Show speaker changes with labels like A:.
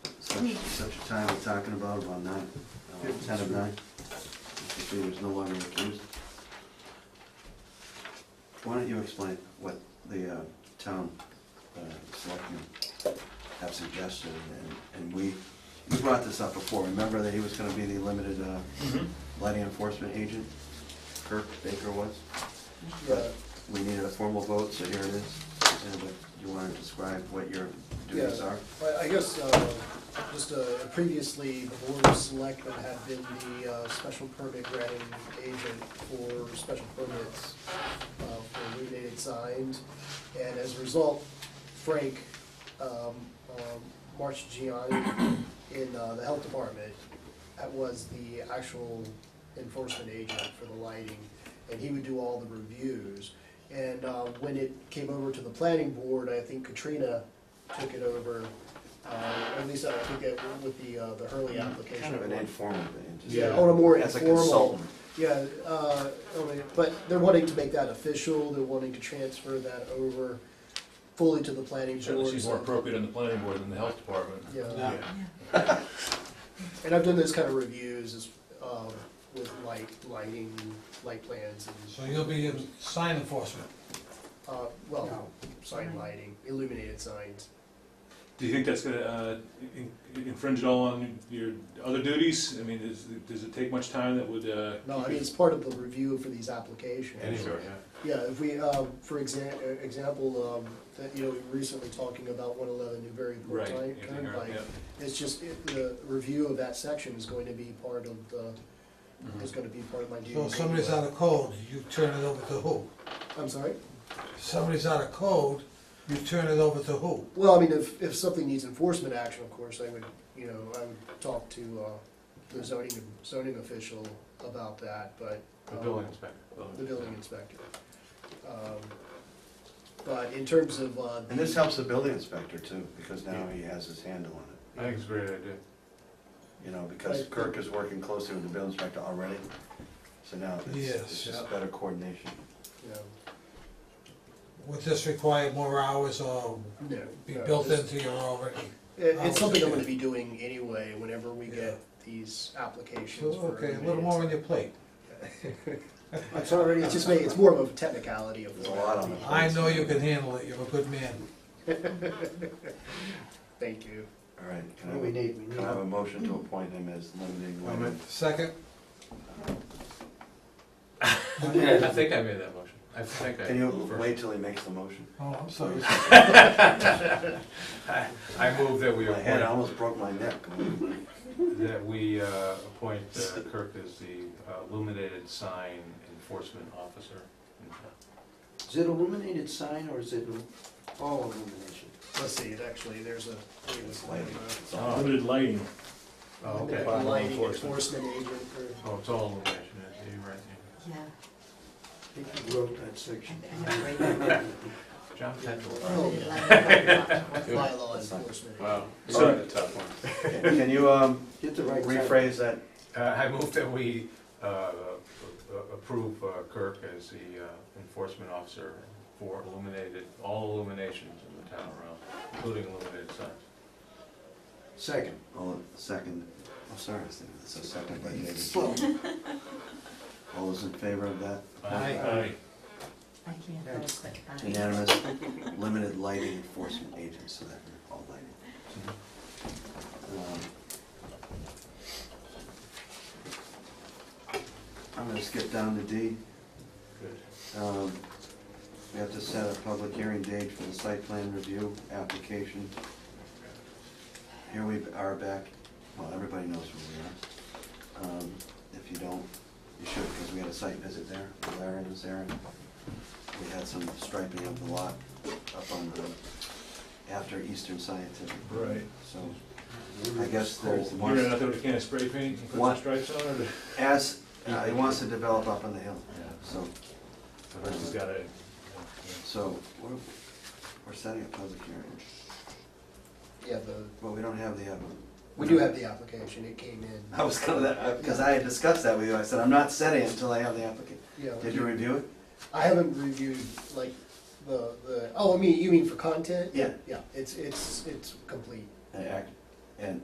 A: such a time we're talking about, about nine, uh, ten of nine. Mr. Green was no longer accused. Why don't you explain what the uh, town uh, selectmen have suggested, and, and we, we brought this up before, remember that he was gonna be the limited uh,
B: Mm-hmm.
A: lighting enforcement agent? Kirk Baker was?
B: Yeah,
A: We needed a formal vote, so here it is. And what- you wanna describe what your duties
B: Yeah.
A: are?
B: I- I guess, uh, just uh, previously, the board of selectmen had been the uh, special permit granting agent for special permits uh, for illuminated signs. And as a result, Frank, um, um, March Gianni in uh, the health department uh, was the actual enforcement agent for the lighting, and he would do all the reviews. And uh, when it came over to the planning board, I think Katrina took it over, uh, at least I think it with the, uh, the early application.
A: Mm-hmm. Kind of an informal thing, just. oh,
B: Yeah, on a more
A: As a
B: informal.
A: consultant.
B: Yeah, uh, okay, but they're wanting to make that official, they're wanting to transfer that over fully to the planning board.
C: Certainly seems more
B: so-
C: appropriate on the planning board than the health department.
B: Yeah, and I've done those kind of reviews as, uh, with light, lighting, light plans
D: So
B: and,
D: you'll be in sign enforcement.
B: uh, well, sign lighting, illuminated signs.
E: Do you think that's gonna uh, in- infringe at all on your other duties? I mean, is, does it take much time that would? uh,
B: No, I mean, it's part of the review for these applications.
E: Sure, yeah.
B: Yeah, if we, um, for exa- uh, example, um, that, you know, we were recently talking about one eleven Newbury Port
E: Right.
B: Turn-
E: yeah,
B: Turnpike.
E: yeah.
B: It's just, it- the review of that section is going to be part of the,
E: Mhm.
B: is gonna be part of my duties.
D: So if somebody's out
B: anyway.
D: of code, you turn it over to who?
B: I'm sorry?
D: If somebody's out of code, you turn it over to who?
B: Well, I mean, if, if something needs enforcement action, of course, I would, you know, I would talk to, uh, the zoning, zoning official about that, but.
E: The
B: um,
E: building inspector.
B: The building inspector. Um, But in terms of, uh.
A: And this helps the building inspector too, because now he has his handle on it,
E: I think it's a great idea.
A: you know, because
B: Right.
A: Kirk is working closely with the building inspector already. So now it's, it's
D: Yes.
A: just better coordination.
B: you know,
D: Would this require more hours or
B: No.
D: be
B: no,
D: built
B: this-
D: into your already?
B: It, it's
D: hours,
B: something I'm
D: yeah.
B: gonna be doing anyway, whenever we
D: Yeah.
B: get these
D: So,
B: applications for.
D: Okay, a little more on your plate.
B: It's already, it's just made, it's more of a technicality of.
A: There's a lot on it.
D: I know you can handle it, you're a good man.
B: Thank you.
A: All right, can I
F: What do we
A: have,
F: need, we need,
A: can I have a motion to appoint him as limiting lighting?
D: Second, Oh,
C: I think I made that motion. I think
A: Can you wait till he makes the motion?
D: oh, I'm sorry.
C: I move that we
A: My head almost broke my neck.
C: that we uh, appoint Kirk as the uh, illuminated sign enforcement officer.
F: is it illuminated sign or is it all illumination?
B: Let's see, it actually, there's a, it was like, uh,
A: It's all-
E: Limited lighting.
C: Oh, okay.
B: lighting
C: Enforcement.
B: enforcement agent for,
C: Oh, it's all illumination, yeah, you're right.
G: Yeah,
F: I think you wrote that section.
G: I know, right?
C: yeah. John Petrol.
B: oh,
G: Yeah.
B: bylaw enforcement. agent.
A: So-
C: a tough one.
A: Can you, um,
F: Get the right. title.
A: rephrase that?
C: Uh, I move that we uh, uh, approve uh, Kirk as the uh, enforcement officer for illuminated, all illuminations in the town around, including illuminated signs.
F: Second.
A: All, second, I'm sorry, I was thinking it's a second, but maybe. All those in favor of that?
C: Aye.
G: I can't vote, but I.
A: Unanimous, limited lighting enforcement agents, so that we're all
C: Mm-hmm.
A: lighting. Um, I'm gonna skip down to D.
C: Good.
A: Um, We have to set a public hearing date for the site plan review application. Here we are back, well, everybody knows where we are. Um, If you don't, you should, because we had a site visit there, Larry was there, and we had some striping of the lot up on the, after Eastern Scientific.
E: Right.
A: So I guess there's
E: You're gonna
A: one,
E: have to can of spray paint and put
A: One-
E: some stripes on it? or-
A: as, uh, he wants to develop up on the hill, so.
E: I just got it.
A: So, we're, we're setting a public hearing,
B: Yeah, the,
A: but we don't have the, uh,
B: we do have the application, it came in,
A: I was gonna, because I had discussed that with you, I said, I'm not setting it until I have the applicant.
B: yeah.
A: Did you review it?
B: I haven't reviewed like the, the, oh, I mean, you mean for content?
A: Yeah.
B: Yeah, it's, it's, it's complete.
A: I ac-